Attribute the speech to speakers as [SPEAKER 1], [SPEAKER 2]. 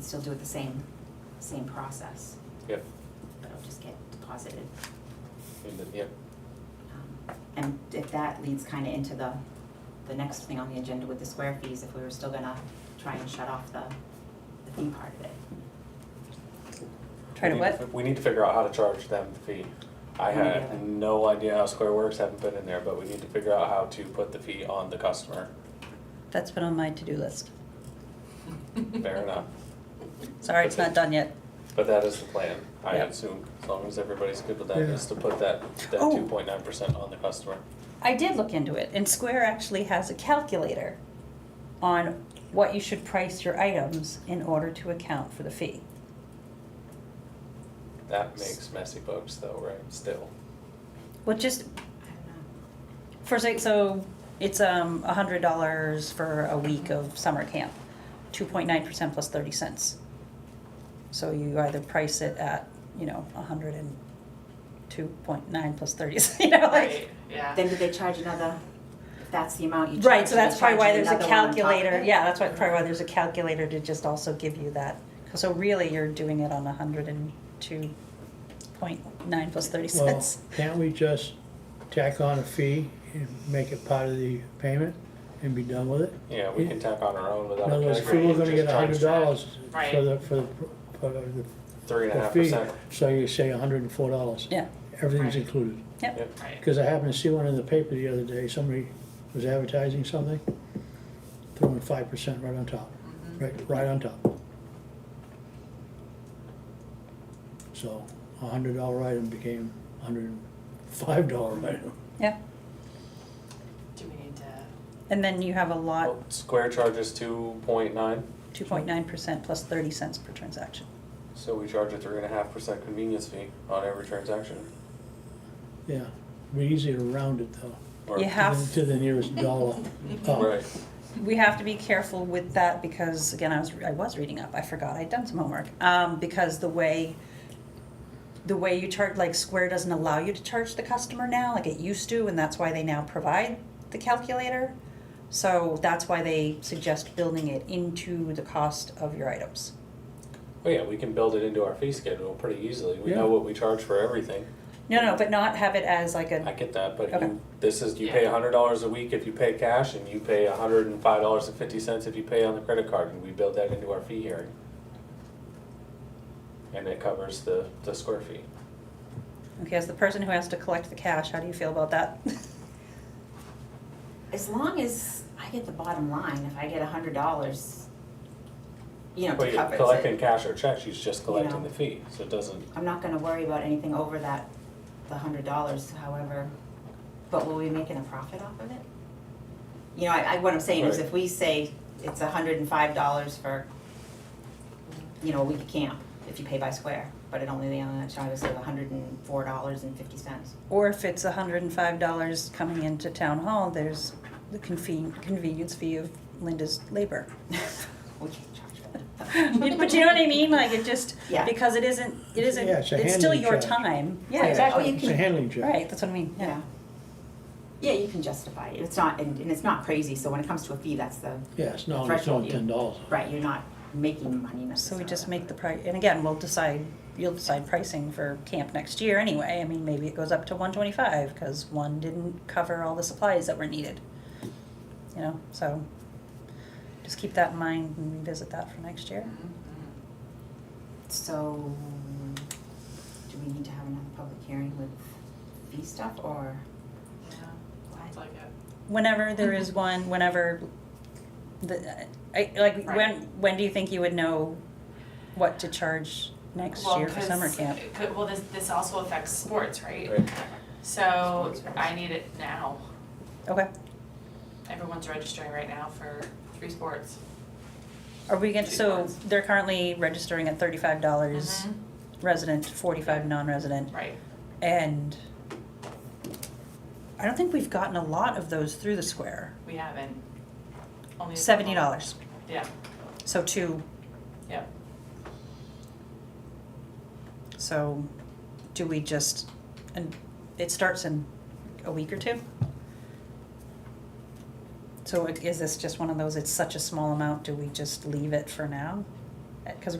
[SPEAKER 1] still do it the same, same process,
[SPEAKER 2] Yep,
[SPEAKER 1] but it'll just get deposited.
[SPEAKER 2] and then, yep,
[SPEAKER 1] Um, And if that leads kind of into the, the next thing on the agenda with the square fees, if we were still gonna try and shut off the, the fee part of it.
[SPEAKER 3] Try to
[SPEAKER 2] We need
[SPEAKER 3] what?
[SPEAKER 2] fi- We need to figure out how to charge them the fee. I
[SPEAKER 1] We need to
[SPEAKER 2] had
[SPEAKER 1] have-
[SPEAKER 2] no idea how Square Works, haven't been in there, but we need to figure out how to put the fee on the customer.
[SPEAKER 3] That's been on my to-do list.
[SPEAKER 2] Fair enough,
[SPEAKER 3] Sorry, it's not done yet.
[SPEAKER 2] but that is the plan, I
[SPEAKER 3] Yeah.
[SPEAKER 2] assume, as long as everybody's good with that,
[SPEAKER 4] Yeah.
[SPEAKER 2] is to put that, that
[SPEAKER 3] Oh.
[SPEAKER 2] two point nine percent on the customer.
[SPEAKER 3] I did look into it, and Square actually has a calculator on what you should price your items in order to account for the fee.
[SPEAKER 2] That makes messy bugs though, right, still.
[SPEAKER 3] Well, just
[SPEAKER 1] I
[SPEAKER 3] for sake, so it's um a hundred dollars for a week of summer camp, two point nine percent plus thirty cents. So you either price it at you know a hundred and two point nine plus thirty, you know, like.
[SPEAKER 5] Right,
[SPEAKER 1] don't know.
[SPEAKER 5] yeah.
[SPEAKER 1] Then do they charge another, if that's the amount you charge,
[SPEAKER 3] Right, so
[SPEAKER 1] do they
[SPEAKER 3] that's probably
[SPEAKER 1] charge
[SPEAKER 3] why
[SPEAKER 1] you
[SPEAKER 3] there's a
[SPEAKER 1] another one on top of
[SPEAKER 3] calculator,
[SPEAKER 1] it?
[SPEAKER 3] yeah, that's why, probably why there's a calculator to just also give you that. So really, you're doing it on a hundred and two point nine plus thirty
[SPEAKER 4] Well,
[SPEAKER 3] cents.
[SPEAKER 4] can't we just tack on a fee and make it part of the payment and be done with it?
[SPEAKER 2] Yeah, we can tack on our own
[SPEAKER 4] In
[SPEAKER 2] without a
[SPEAKER 4] other words, if we
[SPEAKER 2] calculator,
[SPEAKER 4] were gonna get
[SPEAKER 2] just
[SPEAKER 4] a hundred
[SPEAKER 2] charge
[SPEAKER 4] dollars for
[SPEAKER 5] Right.
[SPEAKER 4] the, for the, for the-
[SPEAKER 2] three and a
[SPEAKER 4] the
[SPEAKER 2] half
[SPEAKER 4] fee,
[SPEAKER 2] percent.
[SPEAKER 4] so you say a hundred and four dollars.
[SPEAKER 3] Yeah,
[SPEAKER 4] Everything's
[SPEAKER 5] Right.
[SPEAKER 4] included.
[SPEAKER 3] yep,
[SPEAKER 5] Right.
[SPEAKER 4] Because I happened to see one in the paper the other day, somebody was advertising something, throwing five percent right on top,
[SPEAKER 3] Mm-hmm.
[SPEAKER 4] right, right on top. So a hundred dollar item became a hundred and five dollar item.
[SPEAKER 3] yeah,
[SPEAKER 5] Do we need to,
[SPEAKER 3] and then you have a lot,
[SPEAKER 2] Well, Square charges two point nine,
[SPEAKER 3] two point nine percent plus thirty cents per transaction.
[SPEAKER 2] so we charge a three and a half percent convenience fee on every transaction.
[SPEAKER 4] Yeah, be easier to round it though,
[SPEAKER 2] Or-
[SPEAKER 3] You
[SPEAKER 4] to
[SPEAKER 3] have,
[SPEAKER 4] the- to the nearest dollar. Oh,
[SPEAKER 2] Right,
[SPEAKER 3] we have to be careful with that because, again, I was, I was reading up, I forgot, I'd done some homework. Um, because the way, the way you charge, like Square doesn't allow you to charge the customer now, like it used to, and that's why they now provide the calculator. So that's why they suggest building it into the cost of your items.
[SPEAKER 2] Well, yeah, we can build it into our fee schedule pretty easily. We
[SPEAKER 4] Yeah.
[SPEAKER 2] know what we charge for everything.
[SPEAKER 3] No, no, but not have it as like a,
[SPEAKER 2] I get that, but
[SPEAKER 3] Okay.
[SPEAKER 2] you, this is, you pay a
[SPEAKER 5] Yeah.
[SPEAKER 2] hundred dollars a week if you pay cash and you pay a hundred and five dollars and fifty cents if you pay on the credit card and we build that into our fee hearing. And it covers the, the square fee.
[SPEAKER 3] okay, as the person who has to collect the cash, how do you feel about that?
[SPEAKER 1] As long as I get the bottom line, if I get a hundred dollars, you know,
[SPEAKER 2] But
[SPEAKER 1] to
[SPEAKER 2] you're
[SPEAKER 1] cover it.
[SPEAKER 2] collecting cash or checks, she's just collecting
[SPEAKER 1] Yeah.
[SPEAKER 2] the fee, so it doesn't,
[SPEAKER 1] I'm not gonna worry about anything over that, the hundred dollars, however, but will we be making a profit off of it? You know, I, I, what I'm saying is
[SPEAKER 2] Right.
[SPEAKER 1] if we say it's hundred and five dollars for, you know, a week of camp, if you pay by square, but it only, the only charge is like hundred and four dollars and fifty cents.
[SPEAKER 3] Or if it's hundred and five dollars coming into town hall, there's the conven- convenience fee of Linda's labor.
[SPEAKER 1] We can't charge for that.
[SPEAKER 3] But you know what I mean, like it just,
[SPEAKER 1] Yeah.
[SPEAKER 3] because it isn't, it isn't,
[SPEAKER 4] Yeah, it's a
[SPEAKER 3] it's still
[SPEAKER 4] handling
[SPEAKER 3] your
[SPEAKER 4] charge.
[SPEAKER 3] time,
[SPEAKER 1] Oh,
[SPEAKER 3] yeah,
[SPEAKER 1] yeah.
[SPEAKER 3] exactly,
[SPEAKER 1] you
[SPEAKER 4] It's a
[SPEAKER 1] can-
[SPEAKER 4] handling check.
[SPEAKER 3] right, that's what I mean, yeah.
[SPEAKER 1] Yeah. Yeah, you can justify it, it's not, and, and it's not crazy, so when it comes to a fee, that's the,
[SPEAKER 4] Yeah, it's not, it's
[SPEAKER 1] Threshold,
[SPEAKER 4] only
[SPEAKER 1] yeah.
[SPEAKER 4] ten dollars.
[SPEAKER 1] right, you're not making money
[SPEAKER 3] So
[SPEAKER 1] necessarily.
[SPEAKER 3] we just make the price, and again, we'll decide, you'll decide pricing for camp next year anyway, I mean, maybe it goes up to one twenty-five, cause one didn't cover all the supplies that were needed. You know, so, just keep that in mind and revisit that for next year.
[SPEAKER 5] mm,
[SPEAKER 1] So, do we need to have another public hearing with fee stuff or
[SPEAKER 5] yeah, sounds
[SPEAKER 1] what?
[SPEAKER 5] like it.
[SPEAKER 3] whenever there
[SPEAKER 5] Mm-hmm.
[SPEAKER 3] is one, whenever the, I, like, when,
[SPEAKER 5] Right.
[SPEAKER 3] when do you think you would know what to charge next
[SPEAKER 5] Well,
[SPEAKER 3] year for summer
[SPEAKER 5] 'cause
[SPEAKER 3] camp?
[SPEAKER 5] it could- Well, this, this also affects sports, right?
[SPEAKER 2] right?
[SPEAKER 5] So
[SPEAKER 1] Sports, right.
[SPEAKER 5] I need it now.
[SPEAKER 3] Okay,
[SPEAKER 5] Everyone's registering right now for three sports.
[SPEAKER 3] are we gonna,
[SPEAKER 5] Two
[SPEAKER 3] so
[SPEAKER 5] months.
[SPEAKER 3] they're currently registering at thirty-five dollars
[SPEAKER 5] Mhm.
[SPEAKER 3] resident, forty-five non-resident,
[SPEAKER 5] Right,
[SPEAKER 3] and I don't think we've gotten a lot of those through the square,
[SPEAKER 5] we haven't. Only a
[SPEAKER 3] seventy
[SPEAKER 5] couple.
[SPEAKER 3] dollars,
[SPEAKER 5] Yeah,
[SPEAKER 3] so two,
[SPEAKER 5] yeah.
[SPEAKER 3] so do we just, and it starts in a week or two? So it- is this just one of those, it's such a small amount, do we just leave it for now? Because